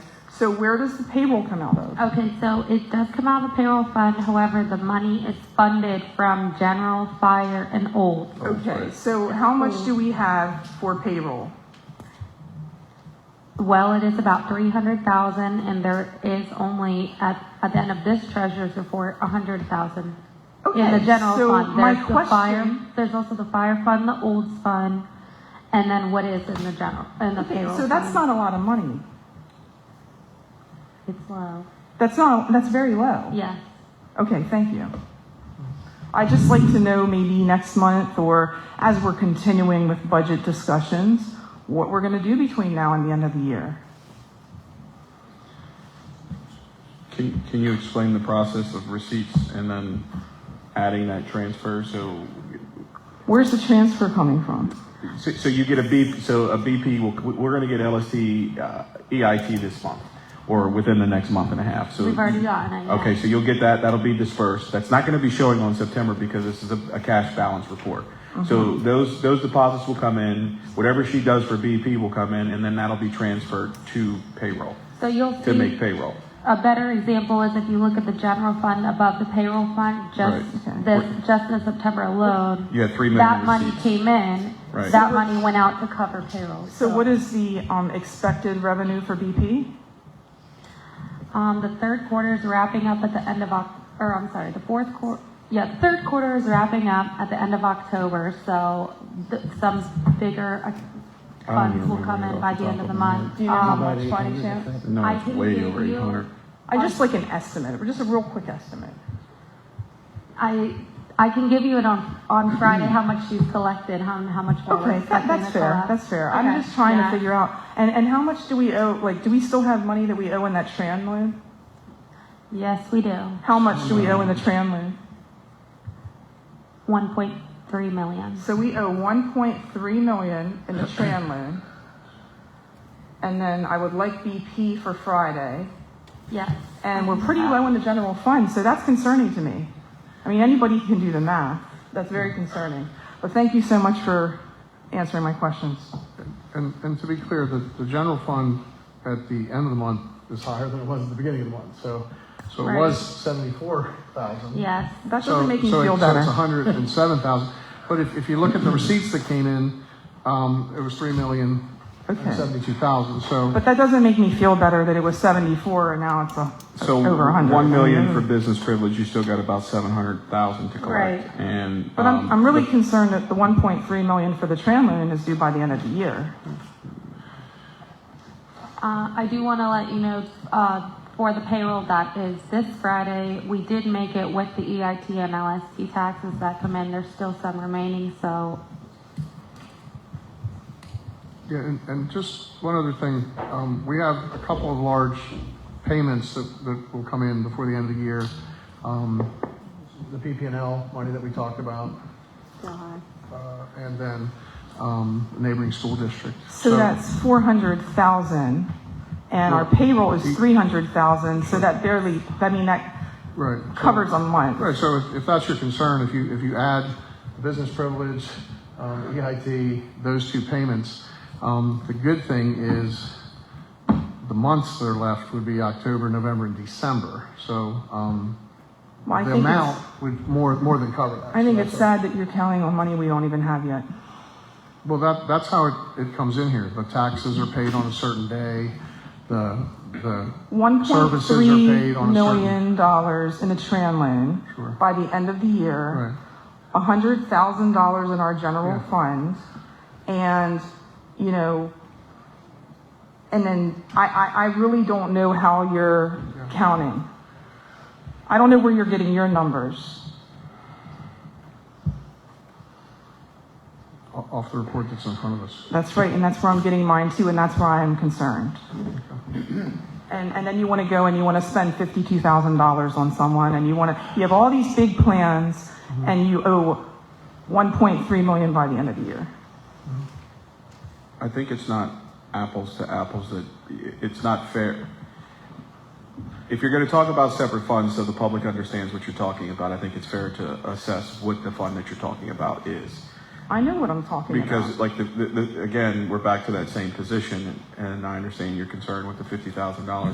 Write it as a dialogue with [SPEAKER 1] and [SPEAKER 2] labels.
[SPEAKER 1] So where does the payroll come out of?
[SPEAKER 2] Okay, so it does come out of the payroll fund, however, the money is funded from general, fire, and old.
[SPEAKER 1] Okay, so how much do we have for payroll?
[SPEAKER 2] Well, it is about three hundred thousand, and there is only, at, at the end of this treasurer's report, a hundred thousand. In the
[SPEAKER 1] Okay,
[SPEAKER 2] general
[SPEAKER 1] so
[SPEAKER 2] fund,
[SPEAKER 1] my
[SPEAKER 2] there's the fire,
[SPEAKER 1] question-
[SPEAKER 2] there's also the fire fund, the olds fund, and then what is in the general, in the payroll.
[SPEAKER 1] So that's
[SPEAKER 2] fund.
[SPEAKER 1] not a lot of money.
[SPEAKER 2] It's low,
[SPEAKER 1] That's not, that's very low.
[SPEAKER 2] yes.
[SPEAKER 1] Okay, thank you. I'd just like to know maybe next month or as we're continuing with budget discussions, what we're gonna do between now and the end of the year.
[SPEAKER 3] Can, can you explain the process of receipts and then adding that transfer? So,
[SPEAKER 1] Where's the transfer coming from?
[SPEAKER 3] so, so you get a B, so a BP, will- we're gonna get LST, uh, EIT this month or within the next month and a half, so.
[SPEAKER 2] We've already gotten it, yeah.
[SPEAKER 3] Okay, so you'll get that, that'll be dispersed. That's not gonna be showing on September because this is a, a cash balance report.
[SPEAKER 2] Mm-hmm.
[SPEAKER 3] So those, those deposits will come in, whatever she does for BP will come in and then that'll be transferred to payroll,
[SPEAKER 2] So you'll see.
[SPEAKER 3] to make payroll.
[SPEAKER 2] A better example is if you look at the general fund above the payroll fund, just
[SPEAKER 3] Right.
[SPEAKER 2] this,
[SPEAKER 3] Right.
[SPEAKER 2] just in September alone.
[SPEAKER 3] You had three million
[SPEAKER 2] That money
[SPEAKER 3] receipts.
[SPEAKER 2] came in,
[SPEAKER 3] Right.
[SPEAKER 2] that money went out to cover payroll.
[SPEAKER 1] So what is the, um, expected revenue for BP?
[SPEAKER 2] Um, the third quarter is wrapping up at the end of Oc, or I'm sorry, the fourth quar, yeah, the third quarter is wrapping up at the end of October, so th- some bigger uh,
[SPEAKER 3] I don't
[SPEAKER 2] funds
[SPEAKER 3] even
[SPEAKER 2] will come
[SPEAKER 3] remember
[SPEAKER 2] in
[SPEAKER 3] off
[SPEAKER 2] by
[SPEAKER 3] the
[SPEAKER 2] the end
[SPEAKER 3] top
[SPEAKER 2] of the
[SPEAKER 3] of my
[SPEAKER 2] month.
[SPEAKER 1] Do you know how
[SPEAKER 2] Um,
[SPEAKER 1] much by any chance?
[SPEAKER 3] No,
[SPEAKER 2] I
[SPEAKER 3] it's
[SPEAKER 2] can
[SPEAKER 3] way
[SPEAKER 2] give
[SPEAKER 3] over
[SPEAKER 2] you-
[SPEAKER 3] 800.
[SPEAKER 1] I just like an estimate, or just a real quick estimate.
[SPEAKER 2] I, I can give you it on, on Friday, how much she's collected, how, how much more we're
[SPEAKER 1] Okay, that,
[SPEAKER 2] expecting
[SPEAKER 1] that's
[SPEAKER 2] to
[SPEAKER 1] fair,
[SPEAKER 2] collect.
[SPEAKER 1] that's fair.
[SPEAKER 2] Okay,
[SPEAKER 1] I'm just trying to
[SPEAKER 2] yeah.
[SPEAKER 1] figure out, and, and how much do we owe, like, do we still have money that we owe in that tran loan?
[SPEAKER 2] Yes, we do.
[SPEAKER 1] How much do we owe in the tran loan?
[SPEAKER 2] One point three million.
[SPEAKER 1] So we owe one point three million in the tran loan. And then I would like BP for Friday,
[SPEAKER 2] Yes. Uh,
[SPEAKER 1] and we're pretty low in the general fund, so that's concerning to me. I mean, anybody can do the math, that's very concerning. But thank you so much for answering my questions.
[SPEAKER 4] And, and to be clear, the, the general fund at the end of the month is higher than it was at the beginning of the month, so, so it was seventy-four thousand.
[SPEAKER 2] Yes.
[SPEAKER 1] That
[SPEAKER 4] So
[SPEAKER 1] doesn't make me
[SPEAKER 4] so it-
[SPEAKER 1] feel
[SPEAKER 4] so
[SPEAKER 1] better.
[SPEAKER 4] it's hundred and seven thousand, but if, if you look at the receipts that came in, um, it was three million
[SPEAKER 1] Okay.
[SPEAKER 4] and seventy-two thousand, so.
[SPEAKER 1] But that doesn't make me feel better that it was 74 and now it's a,
[SPEAKER 3] So
[SPEAKER 1] over 100.
[SPEAKER 3] one million for business privilege, you still got about seven hundred thousand to collect.
[SPEAKER 1] Right.
[SPEAKER 3] And
[SPEAKER 1] But I'm,
[SPEAKER 3] um,
[SPEAKER 1] I'm really concerned that the 1.3 million for the tram loan is due by the end of the year.
[SPEAKER 2] Uh, I do want to let you know, uh, for the payroll that is this Friday, we did make it with the E EIT and LST taxes that come in. There's still some remaining, so
[SPEAKER 4] Yeah, and, and just one other thing, um, we have a couple of large payments that, that will come in before the end of the year. Um, the PP and L money that we talked about, uh, and then, um, neighboring school district.
[SPEAKER 1] So that's 400,000 and our payroll is 300,000, so that barely, I mean, that
[SPEAKER 4] Right. so-
[SPEAKER 1] covers a month.
[SPEAKER 4] Right, so if, if that's your concern, if you, if you add business privilege, um, EIT, those two payments, um, the good thing is the months that are left would be October, November, and December. So, um,
[SPEAKER 1] Well, I
[SPEAKER 4] the
[SPEAKER 1] think it's-
[SPEAKER 4] amount would more, more than cover that.
[SPEAKER 1] I think
[SPEAKER 4] So
[SPEAKER 1] it's
[SPEAKER 4] that's-
[SPEAKER 1] sad that you're counting on money we don't even have yet.
[SPEAKER 4] Well, that, that's how it, it comes in here. The taxes are paid on a certain day, the, the. services are paid
[SPEAKER 1] $1.3
[SPEAKER 4] on a certain-
[SPEAKER 1] million dollars in the tram loan
[SPEAKER 4] Sure.
[SPEAKER 1] by the end of the year.
[SPEAKER 4] Right.
[SPEAKER 1] hundred thousand dollars in our general
[SPEAKER 4] Yeah.
[SPEAKER 1] fund, and you know, and then I, I, I really don't know how you're counting. I don't know where you're getting your numbers.
[SPEAKER 4] O- Off the report that's in front of us.
[SPEAKER 1] That's right, and that's where I'm getting mine too, and that's where I am concerned. And, and then you want to go and you want to spend fifty-two thousand dollars on someone, and you want to, you have all these big plans, and you owe one point three million by the end of the year.
[SPEAKER 3] I think it's not apples to apples that, it's not fair. If you're gonna talk about separate funds so the public understands what you're talking about, I think it's fair to assess what the fund that you're talking about is.
[SPEAKER 1] I know what I'm talking about.
[SPEAKER 3] Because like the, the, the- again, we're back to that same position and I understand your concern with the fifty thousand dollars